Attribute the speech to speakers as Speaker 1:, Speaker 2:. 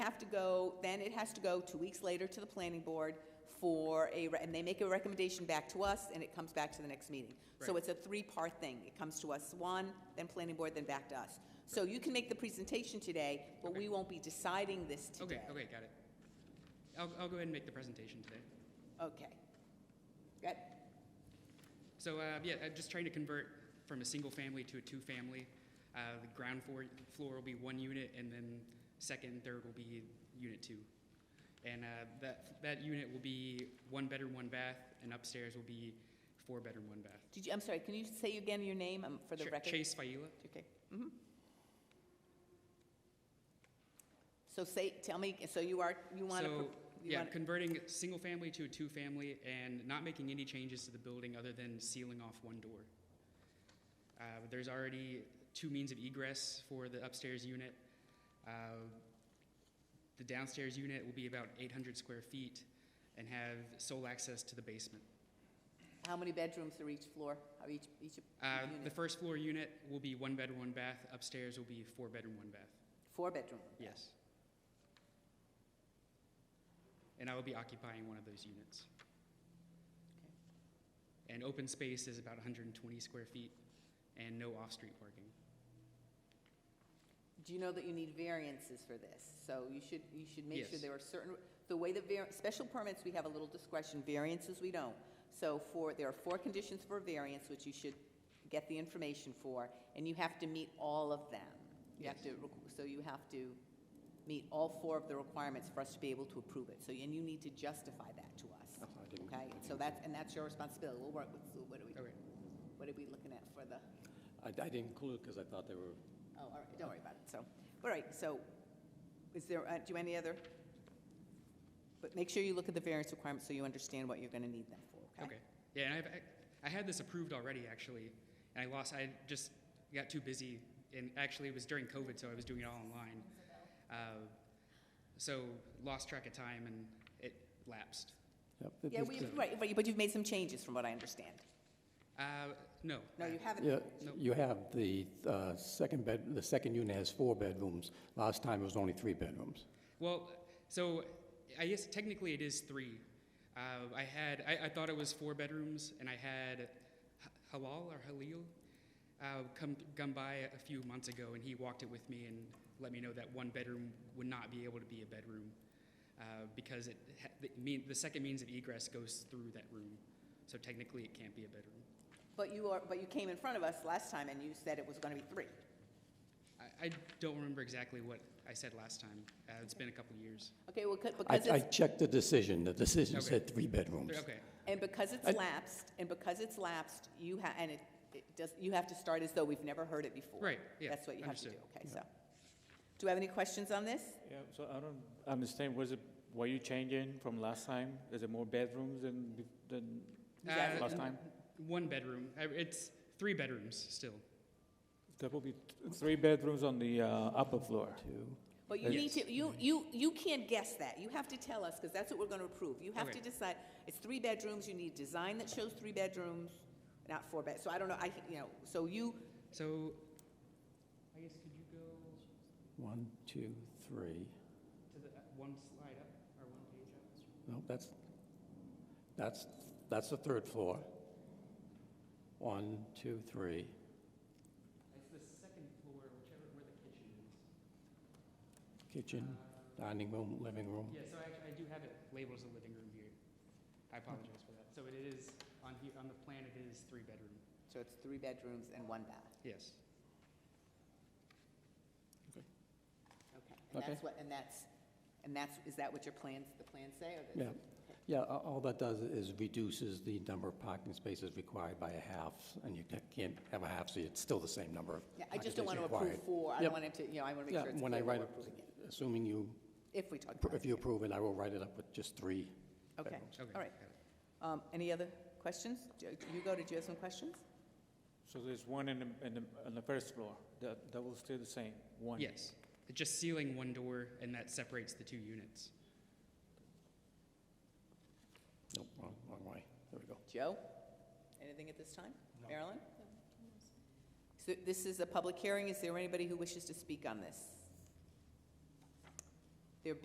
Speaker 1: go, then it has to go two weeks later to the planning board for a, re- and they make a recommendation back to us, and it comes back to the next meeting. So
Speaker 2: Right.
Speaker 1: it's a three-part thing. It comes to us one, then planning board, then back to us. So you can make the presentation today, but we
Speaker 2: Okay.
Speaker 1: won't be deciding this today.
Speaker 2: Okay, okay, got it. I'll, I'll go ahead and make the presentation today.
Speaker 1: Okay. Good.
Speaker 2: So, uh, yeah, I'm just trying to convert from a single family to a two family. Uh, the ground floor, floor will be one unit, and then second and third will be unit two. And uh, that, that unit will be one bedroom, one bath, and upstairs will be four bedroom, one bath.
Speaker 1: Did you, I'm sorry, can you say again your name um, for the
Speaker 2: Ch-
Speaker 1: record?
Speaker 2: Chase Faila.
Speaker 1: Okay. mhm. So say, tell me, so you are, you want to,
Speaker 2: So,
Speaker 1: you
Speaker 2: yeah,
Speaker 1: want,
Speaker 2: converting single family to a two family and not making any changes to the building other than sealing off one door. Uh, there's already two means of egress for the upstairs unit. Uh, the downstairs unit will be about 800 square feet and have sole access to the basement.
Speaker 1: how many bedrooms are each floor, are each, each
Speaker 2: Uh, the
Speaker 1: unit?
Speaker 2: first floor unit will be one bedroom, one bath. Upstairs will be four bedroom, one bath.
Speaker 1: Four-bedroom?
Speaker 2: Yes. And I will be occupying one of those units. And open space is about 120 square feet and no off-street parking.
Speaker 1: Do you know that you need variances for this? So you should, you should make sure
Speaker 2: Yes.
Speaker 1: there are certain, the way the var, special permits, we have a little discretion, variances we don't. So for, there are four conditions for a variance, which you should get the information for, and you have to meet all of them. You have to,
Speaker 2: Yes.
Speaker 1: requ- so you have to meet all four of the requirements for us to be able to approve it. So, and you need to justify that to us,
Speaker 3: I didn't-
Speaker 1: okay? So that's, and that's your responsibility. We'll work with, Sue. what are we,
Speaker 2: Okay.
Speaker 1: what are we looking at for the?
Speaker 3: I, I didn't include it because I thought they were,
Speaker 1: Oh, all right, don't worry about it, so, all right, so, is there, uh, do any other? But make sure you look at the variance requirements so you understand what you're gonna need them for, okay?
Speaker 2: Okay. Yeah, and I've, I had this approved already, actually, and I lost, I just got too busy, and actually it was during COVID, so I was doing it all online. Uh, So lost track of time and it lapsed.
Speaker 3: yep.
Speaker 1: Yeah, we, right, but you- but you've made some changes from what I understand.
Speaker 2: Uh, No.
Speaker 1: No, you haven't.
Speaker 3: Yeah,
Speaker 2: No.
Speaker 3: you have the uh, second bed, the second unit has four bedrooms. Last time it was only three bedrooms.
Speaker 2: Well, so I guess technically it is three. Uh, I had I, I thought it was four bedrooms, and I had H- Halal or Halil uh, come come by a few months ago, and he walked it with me and let me know that one bedroom would not be able to be a bedroom uh, because it ha- the, mean, the second means of egress goes through that room, so technically it can't be a bedroom.
Speaker 1: But you are, but you came in front of us last time and you said it was gonna be three.
Speaker 2: I, I don't remember exactly what I said last time. Uh, it's been a couple years.
Speaker 1: Okay, well, 'cause-
Speaker 3: I,
Speaker 1: because
Speaker 3: I
Speaker 1: it's,
Speaker 3: checked the decision, the decision
Speaker 2: Okay.
Speaker 3: said three bedrooms.
Speaker 2: Okay.
Speaker 1: and because it's
Speaker 3: I-
Speaker 1: lapsed, and because it's lapsed, you ha, and it, it does, you have to start as though we've never heard it before.
Speaker 2: Right, yeah,
Speaker 1: That's what you have to do,
Speaker 2: understood.
Speaker 1: okay, so. Do we have any questions on this?
Speaker 4: Yeah, so I don't understand, was it, were you changing from last time? Is it more bedrooms than, be- than
Speaker 1: Yeah.
Speaker 2: Uh,
Speaker 4: last time?
Speaker 2: One bedroom. I- It's three bedrooms still.
Speaker 4: There will be th- three bedrooms on the uh, upper floor.
Speaker 3: Two.
Speaker 1: But you need
Speaker 2: Yes.
Speaker 1: to, you, you, you can't guess that. You have to tell us, because that's what we're gonna approve. You have to
Speaker 2: Okay.
Speaker 1: decide, it's three bedrooms, you need design that shows three bedrooms, not four bed, so I don't know, I, you know, so you,
Speaker 2: So, I guess could you go to
Speaker 3: One, two, three.
Speaker 2: the uh, one slide up or one page up?
Speaker 3: No, that's, that's, that's the third floor. One, two, three.
Speaker 2: It's the second floor, whichever where the kitchen is.
Speaker 3: Kitchen,
Speaker 2: Uh,
Speaker 3: dining room, living room.
Speaker 2: yeah, so I, I do have it labeled as a living room here. I apologize for that. So it is on here on the plan. It is three bedroom.
Speaker 1: so it's three bedrooms and one bath,
Speaker 2: Yes.
Speaker 1: okay? And
Speaker 3: Okay.
Speaker 1: that's what, and that's, and that's, is that what your plans, the plans say, or the?
Speaker 3: Yeah, yeah, a- all that does is reduces the number of parking spaces required by a half, and you ca- can't have a half, so it's still the same number of
Speaker 1: Yeah, I
Speaker 3: parking
Speaker 1: just don't
Speaker 3: spaces
Speaker 1: wanna approve
Speaker 3: required.
Speaker 1: four, I
Speaker 3: Yep.
Speaker 1: don't want it to, you know, I wanna make
Speaker 3: Yeah,
Speaker 1: sure it's
Speaker 3: when I
Speaker 1: clear what
Speaker 3: write
Speaker 1: we're
Speaker 3: it-
Speaker 1: approving it,
Speaker 3: Assuming you,
Speaker 1: if we talk
Speaker 3: appro-
Speaker 1: about
Speaker 3: if
Speaker 1: it.
Speaker 3: you approve it, I will write it up with just three.
Speaker 1: Okay,
Speaker 3: bedrooms.
Speaker 2: Okay.
Speaker 1: all right.
Speaker 2: got it.
Speaker 1: Um, any other questions? Jo- Hugo, did you have some questions?
Speaker 4: So there's one in the, in the, on the first floor, that, that will stay the same, one?
Speaker 2: Yes. It's just sealing one door, and that separates the two units.
Speaker 3: Nope, wrong, wrong way, there we go.
Speaker 1: Joe? Anything at this time? Marilyn? So this is a public hearing. Is there anybody who wishes to speak on this?